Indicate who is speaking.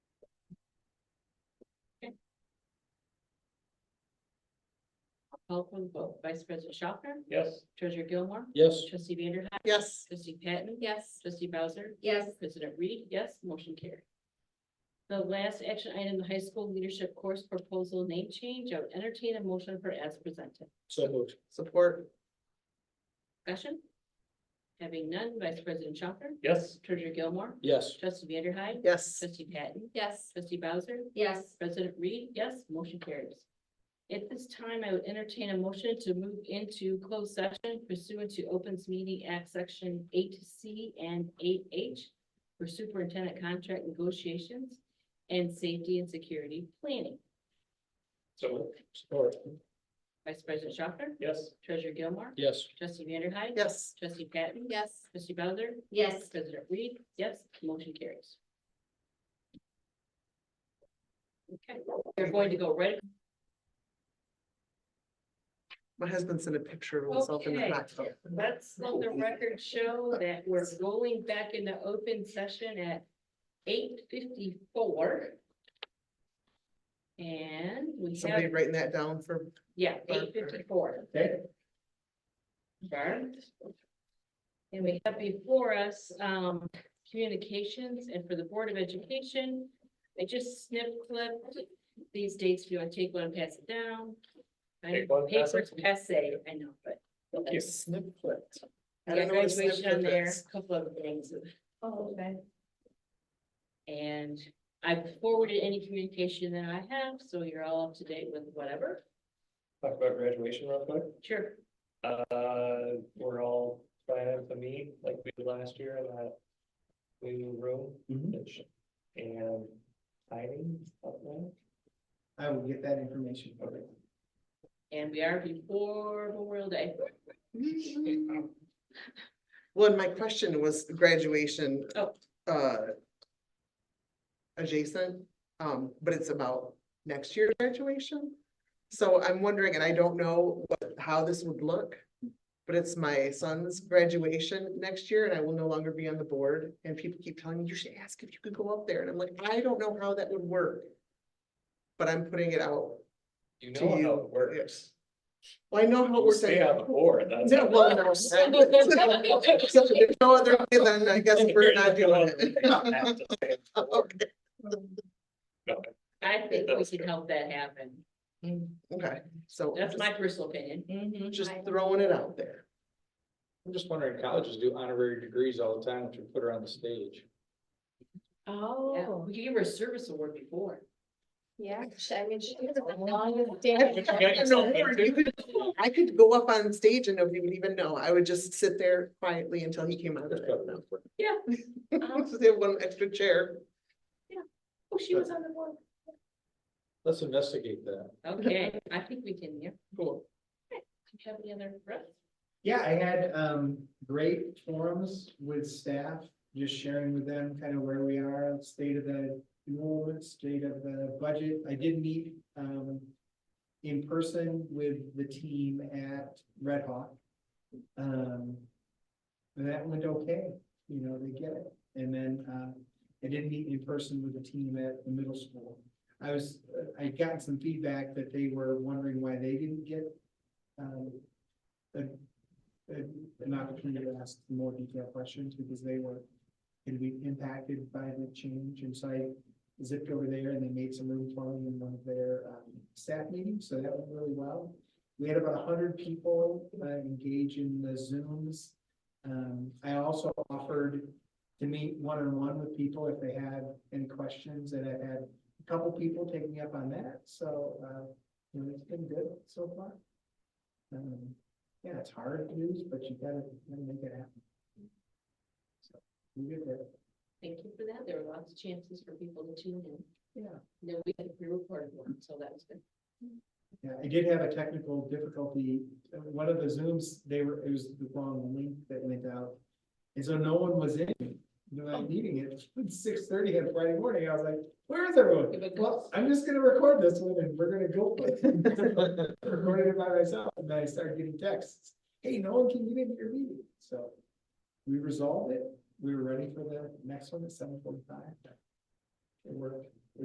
Speaker 1: Call for the vote. Vice President Schopner,
Speaker 2: Yes.
Speaker 1: Treasurer Gilmore,
Speaker 2: Yes.
Speaker 1: Trustee Vanderhyde,
Speaker 3: yes,
Speaker 1: Trustee Patton,
Speaker 4: Yes.
Speaker 1: Trustee Bowser,
Speaker 4: Yes.
Speaker 1: President Reed, yes, motion carried. The last action item, the high school leadership course proposal name change. I would entertain a motion for as presented.
Speaker 2: So moved.
Speaker 3: support,
Speaker 1: Discussion? Having none, Vice President Schopner,
Speaker 2: Yes.
Speaker 1: Treasurer Gilmore,
Speaker 2: Yes.
Speaker 1: Trustee Vanderhyde,
Speaker 3: yes,
Speaker 1: Trustee Patton,
Speaker 4: Yes.
Speaker 1: Trustee Bowser,
Speaker 4: Yes.
Speaker 1: President Reed, yes, motion carries. At this time, I would entertain a motion to move into closed session pursuant to Opens Meeting Act Section eight C and eight H for superintendent contract negotiations and safety and security planning.
Speaker 2: So moved. Support.
Speaker 1: Vice President Schopner,
Speaker 2: Yes.
Speaker 1: Treasurer Gilmore,
Speaker 2: Yes.
Speaker 1: Trustee Vanderhyde.
Speaker 3: yes.
Speaker 1: Trustee Patton.
Speaker 4: Yes.
Speaker 1: Trustee Bowser.
Speaker 4: Yes.
Speaker 1: President Reed, yes, motion carries. Okay, we're going to go right
Speaker 3: My husband sent a picture of himself in the
Speaker 1: Okay.
Speaker 3: hot tub.
Speaker 1: Let's let the record show that we're going back into open session at eight fifty-four. And we
Speaker 3: Somebody
Speaker 1: have,
Speaker 3: writing that down for,
Speaker 1: yeah, eight fifty-four.
Speaker 2: Okay.
Speaker 1: And we have before us, um, communications and for the Board of Education. I just snip clipped these dates. If you want to take one, and pass it down. I
Speaker 2: Take
Speaker 1: know
Speaker 2: one, pass
Speaker 1: Papers
Speaker 2: it.
Speaker 1: passe, I know, but.
Speaker 2: you.
Speaker 3: snip clipped. I
Speaker 1: I
Speaker 3: don't
Speaker 1: got
Speaker 3: know what a
Speaker 1: graduation
Speaker 3: snip
Speaker 1: on
Speaker 3: clip
Speaker 1: there,
Speaker 3: is.
Speaker 1: a couple of things.
Speaker 4: Oh, okay.
Speaker 1: And I've forwarded any communication that I have, so you're all up to date with whatever.
Speaker 2: Talk about graduation real quick.
Speaker 1: Sure.
Speaker 2: Uh, we're all planning to meet like we did last year in that new room.
Speaker 3: Mm-hmm.
Speaker 2: which- And timing of that.
Speaker 5: I will get that information. for you.
Speaker 1: And we are before Memorial Day.
Speaker 3: Well, and my question was graduation.
Speaker 1: Oh.
Speaker 3: Uh. Adjacent, um, but it's about next year's graduation. So I'm wondering, and I don't know what, how this would look. But it's my son's graduation next year and I will no longer be on the board and people keep telling me, you should ask if you could go up there. And I'm like, I don't know how that would work. But I'm putting it out.
Speaker 2: You
Speaker 3: To
Speaker 2: know
Speaker 3: you.
Speaker 2: how it works.
Speaker 3: Well, I know how it
Speaker 2: You
Speaker 3: works. I
Speaker 2: stay on the board, that's.
Speaker 3: Yeah, well, no. So there's No other way than I guess we're not doing it. Okay.
Speaker 1: I think we can help that happen.
Speaker 3: Okay, so
Speaker 1: That's my personal opinion.
Speaker 3: just throwing it out there.
Speaker 6: I'm just wondering, colleges do honorary degrees all the time, which we put her on the stage.
Speaker 1: Yeah, We gave her a service award before.
Speaker 4: Oh, Yeah, she- I mean, she was a
Speaker 3: Oh.
Speaker 4: long
Speaker 3: I
Speaker 4: day.
Speaker 3: don't know where you could- I could go up on stage and nobody would even know. I would just sit there quietly until he came out of
Speaker 6: That's
Speaker 3: there.
Speaker 6: probably not for-
Speaker 1: Um,
Speaker 3: Just have one extra chair.
Speaker 1: Oh, she was on the board.
Speaker 6: Let's investigate that.
Speaker 1: Okay, I think we can, yeah.
Speaker 3: Cool.
Speaker 1: Do you have any other? Russ?
Speaker 5: Yeah, I had um great forums with staff, just sharing with them kind of where we are, state of the enrollment, state of the budget. I did meet um in person with the team at Red Hawk. Um, and that went okay, you know, they get it. And then um I did meet in person with the team at the middle school. I was, I gotten some feedback that they were wondering why they didn't get um a, a- an opportunity to ask more detailed questions because they were going to be impacted by the change. And so I zipped over there and they made some room for me in one of their um, staff meetings. So that went really well. We had about hundred people uh, engage in the Zooms. Um, I also offered to meet one-on-one with people if they had any questions and I've had a couple people take me up on that. So, uh, you know, it's been good so far. Um, yeah, it's hard to do, but you gotta, gotta make it happen. So, we get there.
Speaker 1: Thank you for that. There were lots of chances for people to tune in.
Speaker 5: Yeah.
Speaker 1: No, we had a pre-recorded one, so that was good.
Speaker 5: Yeah, I did have a technical difficulty. Uh, One of the Zooms, they were, it was the wrong link that went out. And so no one was in, when I needing it, six thirty on Friday morning, I was like, where is everyone?
Speaker 1: Give it a
Speaker 5: Well, I'm just gonna record this one and we're gonna go. for it." Recorded it by myself, and then I started getting texts, hey, no one can get into your meeting, so. We resolved it, we were ready for the next one at seven forty-five. It worked.